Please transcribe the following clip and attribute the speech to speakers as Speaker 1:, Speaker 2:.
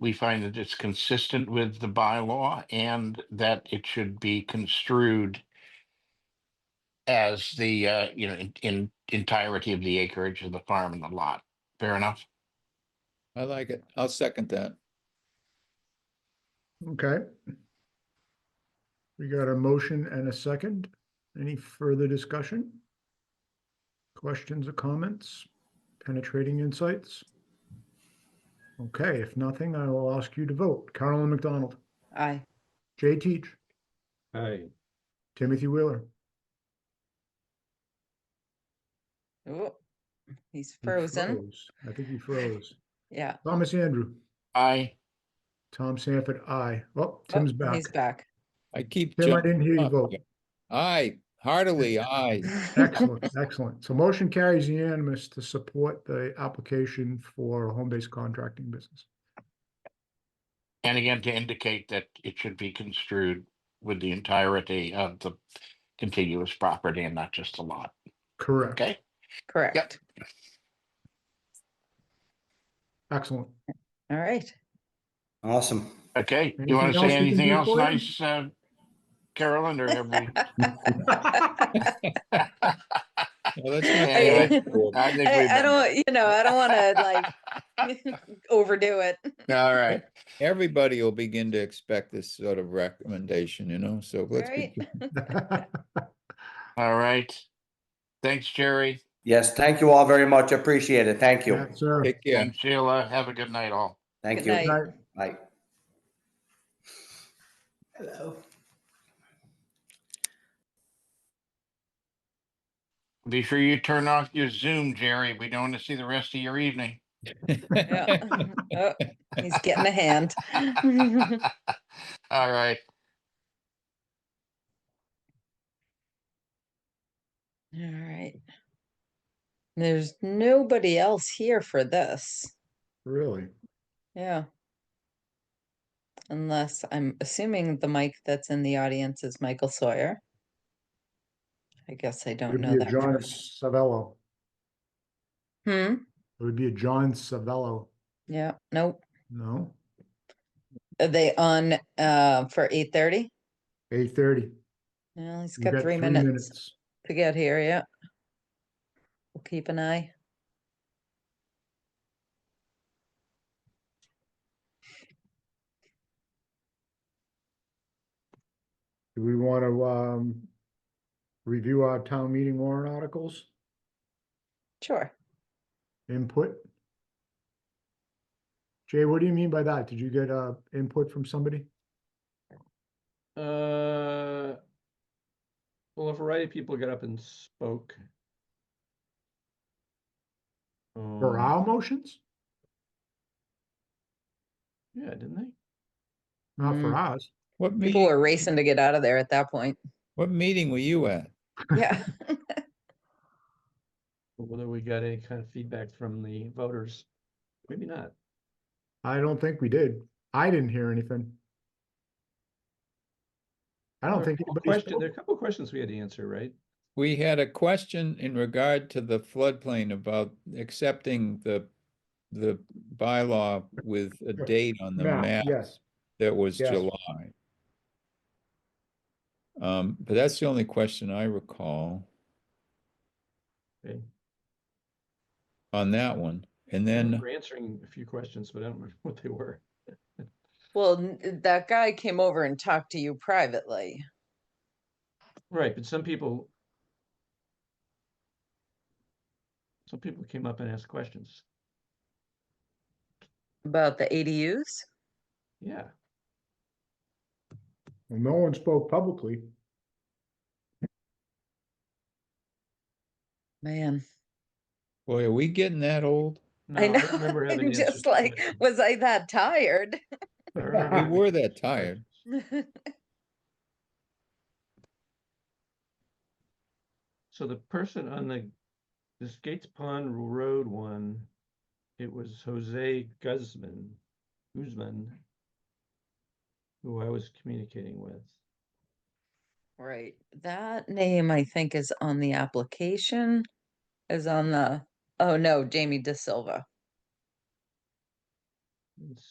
Speaker 1: we find that it's consistent with the bylaw and that it should be construed as the, uh, you know, in- in entirety of the acreage of the farm and the lot. Fair enough?
Speaker 2: I like it. I'll second that.
Speaker 3: Okay. We got a motion and a second. Any further discussion? Questions or comments? Penetrating insights? Okay, if nothing, I will ask you to vote. Carolyn McDonald,
Speaker 4: Aye.
Speaker 3: Jay Teach,
Speaker 5: Aye.
Speaker 3: Timothy Wheeler,
Speaker 4: Oh, he's
Speaker 3: He
Speaker 4: frozen.
Speaker 3: froze. I think he froze.
Speaker 4: Yeah.
Speaker 3: Thomas Andrew,
Speaker 1: I,
Speaker 3: Tom Sanford, aye. Oh,
Speaker 4: Oh,
Speaker 3: Tim's back.
Speaker 4: He's back.
Speaker 2: I keep.
Speaker 3: Tim, I
Speaker 2: jumping
Speaker 3: didn't hear you
Speaker 2: up.
Speaker 3: vote.
Speaker 2: Aye, heartily, aye.
Speaker 3: Excellent, excellent. So motion carries unanimous to support the application for a home-based contracting business.
Speaker 1: and again, to indicate that it should be construed with the entirety of the contiguous property and not just the lot.
Speaker 3: Correct.
Speaker 1: Okay?
Speaker 4: Correct.
Speaker 3: Excellent.
Speaker 4: All right.
Speaker 5: Awesome.
Speaker 1: Okay, you
Speaker 3: Anything
Speaker 1: want to
Speaker 3: else we
Speaker 1: say
Speaker 3: can
Speaker 1: anything
Speaker 3: do
Speaker 1: else
Speaker 3: for you?
Speaker 1: nice, uh, Carolyn, or have we?
Speaker 2: Well, that's
Speaker 1: Yeah,
Speaker 2: not
Speaker 1: yeah.
Speaker 2: bad. Cool.
Speaker 1: I think
Speaker 4: I,
Speaker 1: we've
Speaker 4: I
Speaker 1: been-
Speaker 4: don't, you know, I don't want to like overdo it.
Speaker 1: All right,
Speaker 2: Everybody will begin to expect this sort of recommendation, you know, so let's. be-
Speaker 4: Right?
Speaker 1: all right. Thanks, Jerry
Speaker 5: Yes, thank you all very much. Appreciate it. Thank you.
Speaker 3: Yes, sir.
Speaker 2: Take care.
Speaker 1: and Sheila. Have a good night all.
Speaker 5: Thank
Speaker 4: Good
Speaker 5: you.
Speaker 4: night.
Speaker 3: Right.
Speaker 5: Bye.
Speaker 1: Be sure you turn off your Zoom, Jerry. We don't want to see the rest of your evening.
Speaker 4: Yeah. Oh, He's getting a hand.
Speaker 1: All right,
Speaker 4: All right. There's nobody else here for this.
Speaker 3: Really?
Speaker 4: Yeah. Unless I'm assuming the mic that's in the audience is Michael Sawyer. I guess I
Speaker 3: It
Speaker 4: don't
Speaker 3: would
Speaker 4: know
Speaker 3: be a
Speaker 4: that.
Speaker 3: John
Speaker 4: person.
Speaker 3: Savello.
Speaker 4: Hmm,
Speaker 3: It would be a John Savello.
Speaker 4: yeah, nope.
Speaker 3: No?
Speaker 4: Are they on uh for eight thirty?
Speaker 3: Eight thirty.
Speaker 4: Well, he's got three minutes to get here, yeah. We'll keep an eye.
Speaker 3: Do we want to, um, review our town meeting warrant articles,
Speaker 4: Sure.
Speaker 3: input? Jay, what do you mean by that? Did you get, uh, input from somebody?
Speaker 6: Uh, well, a variety of people got up and spoke.
Speaker 3: For
Speaker 6: Um,
Speaker 3: our motions?
Speaker 6: Yeah, didn't they?
Speaker 3: Not for ours.
Speaker 2: What
Speaker 4: People
Speaker 2: meeting,
Speaker 4: were racing to get out of there at that point.
Speaker 2: what meeting were you at?
Speaker 4: Yeah.
Speaker 6: But Whether we got any kind of feedback from the voters, maybe not.
Speaker 3: I don't think we did. I didn't hear anything. I don't
Speaker 6: There are a
Speaker 3: think.
Speaker 6: couple
Speaker 3: anybody
Speaker 6: question-
Speaker 3: spoke.
Speaker 6: There are a couple of questions we had to answer, right?
Speaker 2: We had a question in regard to the floodplain about accepting the, the bylaw with a
Speaker 3: Sure.
Speaker 2: date on the
Speaker 3: Map,
Speaker 2: map
Speaker 3: Yes,
Speaker 2: that was
Speaker 3: yes.
Speaker 2: July. Um, but that's the only question I recall
Speaker 6: Okay.
Speaker 2: on that one. And
Speaker 6: I
Speaker 2: then,
Speaker 6: remember answering a few questions, but I don't remember what they were.
Speaker 4: Well, n- that guy came over and talked to you privately.
Speaker 6: Right, but some people. Some people came up and asked questions.
Speaker 4: About the ADUs?
Speaker 6: Yeah,
Speaker 3: well, no one spoke publicly.
Speaker 4: Man,
Speaker 2: boy, are we getting that old?
Speaker 6: no,
Speaker 4: I
Speaker 6: I
Speaker 4: know.
Speaker 6: don't remember having
Speaker 4: I'm
Speaker 6: answers to
Speaker 4: just like,
Speaker 6: questions.
Speaker 4: was I that tired?
Speaker 6: I remember
Speaker 2: We
Speaker 6: having
Speaker 2: were that
Speaker 6: questions.
Speaker 2: tired.
Speaker 6: So the person on the, this Gates Pond Road one, it was Jose Guzman, Guzman, who I was communicating with.
Speaker 4: Right, that name I think is on the application, is on the, oh no, Jamie De Silva.
Speaker 6: Let's